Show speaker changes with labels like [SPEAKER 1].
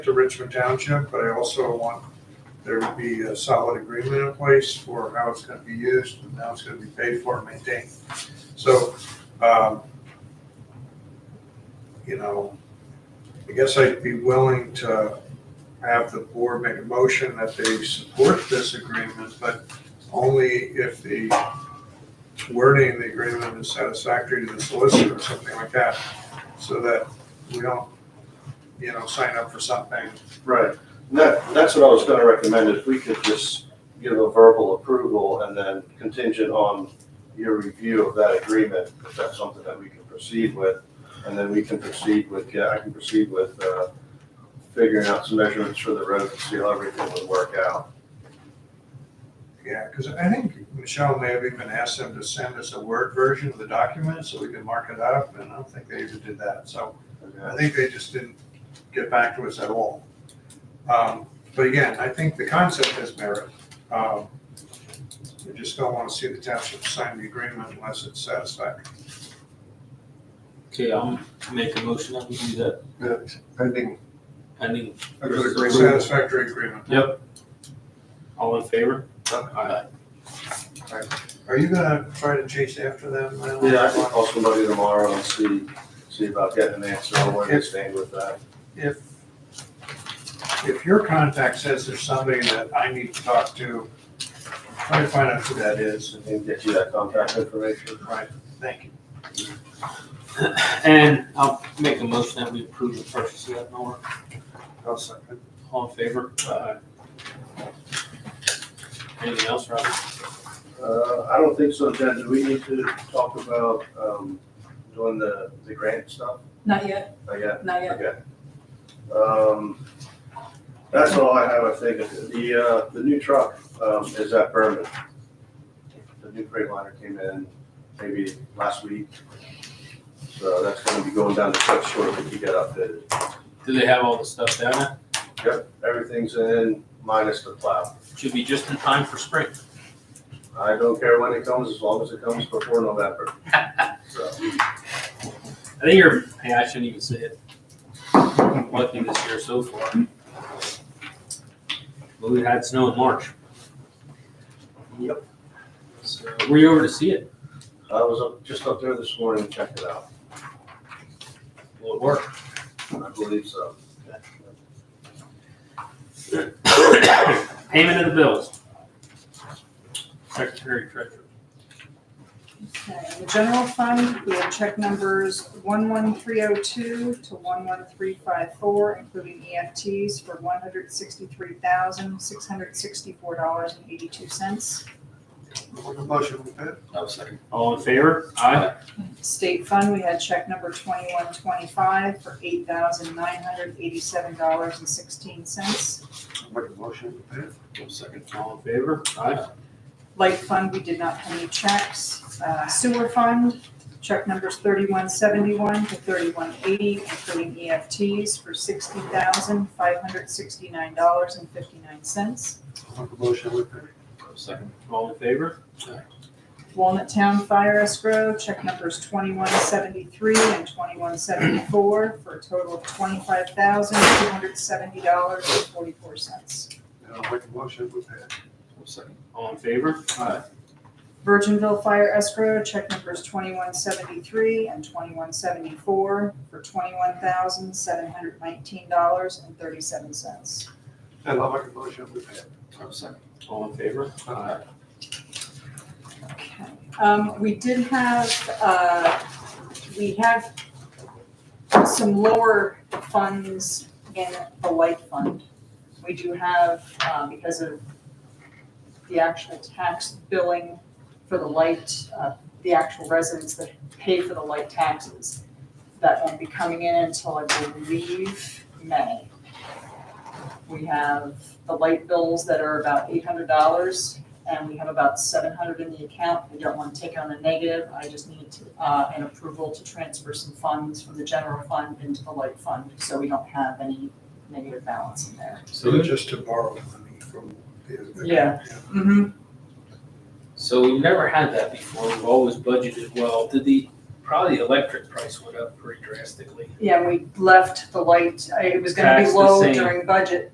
[SPEAKER 1] to Richmond Township, but I also want there to be a solid agreement in place for how it's gonna be used and how it's gonna be paid for and maintained. So, um, you know, I guess I'd be willing to have the board make a motion that they support this agreement, but only if the wording of the agreement is satisfactory to the solicitor or something like that, so that we don't, you know, sign up for something
[SPEAKER 2] Right, and that, that's what I was gonna recommend, if we could just give a verbal approval and then contingent on your review of that agreement, if that's something that we can proceed with, and then we can proceed with, yeah, I can proceed with, uh, figuring out some measurements for the road to see how everything would work out.
[SPEAKER 1] Yeah, because I think Michelle may have even asked them to send us a Word version of the document so we could mark it up, and I don't think they even did that, so I think they just didn't get back to us at all. Um, But again, I think the concept has merit. Um, We just don't want to see the township sign the agreement unless it's satisfactory.
[SPEAKER 3] Okay, I'll make a motion that we do that
[SPEAKER 4] Pending.
[SPEAKER 3] pending.
[SPEAKER 4] a good agreement.
[SPEAKER 1] Satisfactory agreement.
[SPEAKER 3] All in favor? Aye.
[SPEAKER 1] Are you gonna try to chase after them? Lionel?
[SPEAKER 2] Yeah, I can call somebody tomorrow and see, see about getting an answer on where they stand with that.
[SPEAKER 1] if, if your contact says there's somebody that I need to talk to, try to find out who that is.
[SPEAKER 2] I can get you that contact information.
[SPEAKER 1] Right, thank you.
[SPEAKER 3] And I'll make a motion that we approve the purchase of that mower.
[SPEAKER 1] I'll second.
[SPEAKER 3] All in favor? Aye. Anything else, Rob?
[SPEAKER 2] Uh, I don't think so, Jen. Do we need to talk about, um, doing the, the grant stuff?
[SPEAKER 5] Not yet,
[SPEAKER 2] Not yet?
[SPEAKER 5] not yet.
[SPEAKER 2] Okay. Um, that's all I have, I think. The, uh, the new truck, um, is at Berman. The new freight liner came in maybe last week. So that's gonna be going down the truck shortly to get updated.
[SPEAKER 3] Do they have all the stuff down there?
[SPEAKER 2] Yep, everything's in minus the plow.
[SPEAKER 3] Should be just in time for spring.
[SPEAKER 2] I don't care when it comes, as long as it comes before November. So.
[SPEAKER 3] I think you're, hey, I shouldn't even say it. Lucky this year so far. But we had snow in March. Yep. So, were you over to see it?
[SPEAKER 2] I was up, just up there this morning, and checked it out.
[SPEAKER 3] Will it work?
[SPEAKER 2] I believe so.
[SPEAKER 3] Payment of the bills. Secretary Treasurer.
[SPEAKER 5] Okay, The general fund, we have check numbers one one three oh two to one one three five four, including EFTs for one hundred sixty-three thousand, six hundred sixty-four dollars and eighty-two cents.
[SPEAKER 1] Motion with that?
[SPEAKER 6] I'll second.
[SPEAKER 3] All in favor? Aye.
[SPEAKER 5] State fund, we had check number twenty-one twenty-five for eight thousand, nine hundred eighty-seven dollars and sixteen cents.
[SPEAKER 1] Make a motion with that?
[SPEAKER 6] I'll second.
[SPEAKER 3] All in favor? Aye.
[SPEAKER 5] Light fund, we did not have any checks. Uh, Sewer fund, check numbers thirty-one seventy-one to thirty-one eighty, including EFTs for sixty thousand, five hundred sixty-nine dollars and fifty-nine cents.
[SPEAKER 1] Make a motion with that?
[SPEAKER 6] I'll second.
[SPEAKER 3] All in favor?
[SPEAKER 5] Walnut Town Fire Escrow, check numbers twenty-one seventy-three and twenty-one seventy-four for a total of twenty-five thousand, two hundred seventy dollars and forty-four cents.
[SPEAKER 1] Yeah, I'll make a motion with that.
[SPEAKER 6] I'll second.
[SPEAKER 3] All in favor? Aye.
[SPEAKER 5] Virginville Fire Escrow, check numbers twenty-one seventy-three and twenty-one seventy-four for twenty-one thousand, seven hundred nineteen dollars and thirty-seven cents.
[SPEAKER 1] And I'll make a motion with that.
[SPEAKER 6] I'll second.
[SPEAKER 3] All in favor? Aye.
[SPEAKER 5] Okay. Um, we did have, uh, we have some lower funds in the light fund. We do have, uh, because of the actual tax billing for the light, uh, the actual residents that pay for the light taxes. That won't be coming in until I believe May. We have the light bills that are about eight hundred dollars and we have about seven hundred in the account. We don't want to take on a negative. I just need to, uh, an approval to transfer some funds from the general fund into the light fund, so we don't have any negative balance in there.
[SPEAKER 1] So just to borrow money from the.
[SPEAKER 5] Yeah. Mm-hmm.
[SPEAKER 3] So we've never had that before. We've always budgeted well. Did the probably the electric price went up pretty drastically.
[SPEAKER 5] Yeah, we left the light, I- it was gonna be
[SPEAKER 3] Tax the
[SPEAKER 5] low
[SPEAKER 3] same.
[SPEAKER 5] during budget,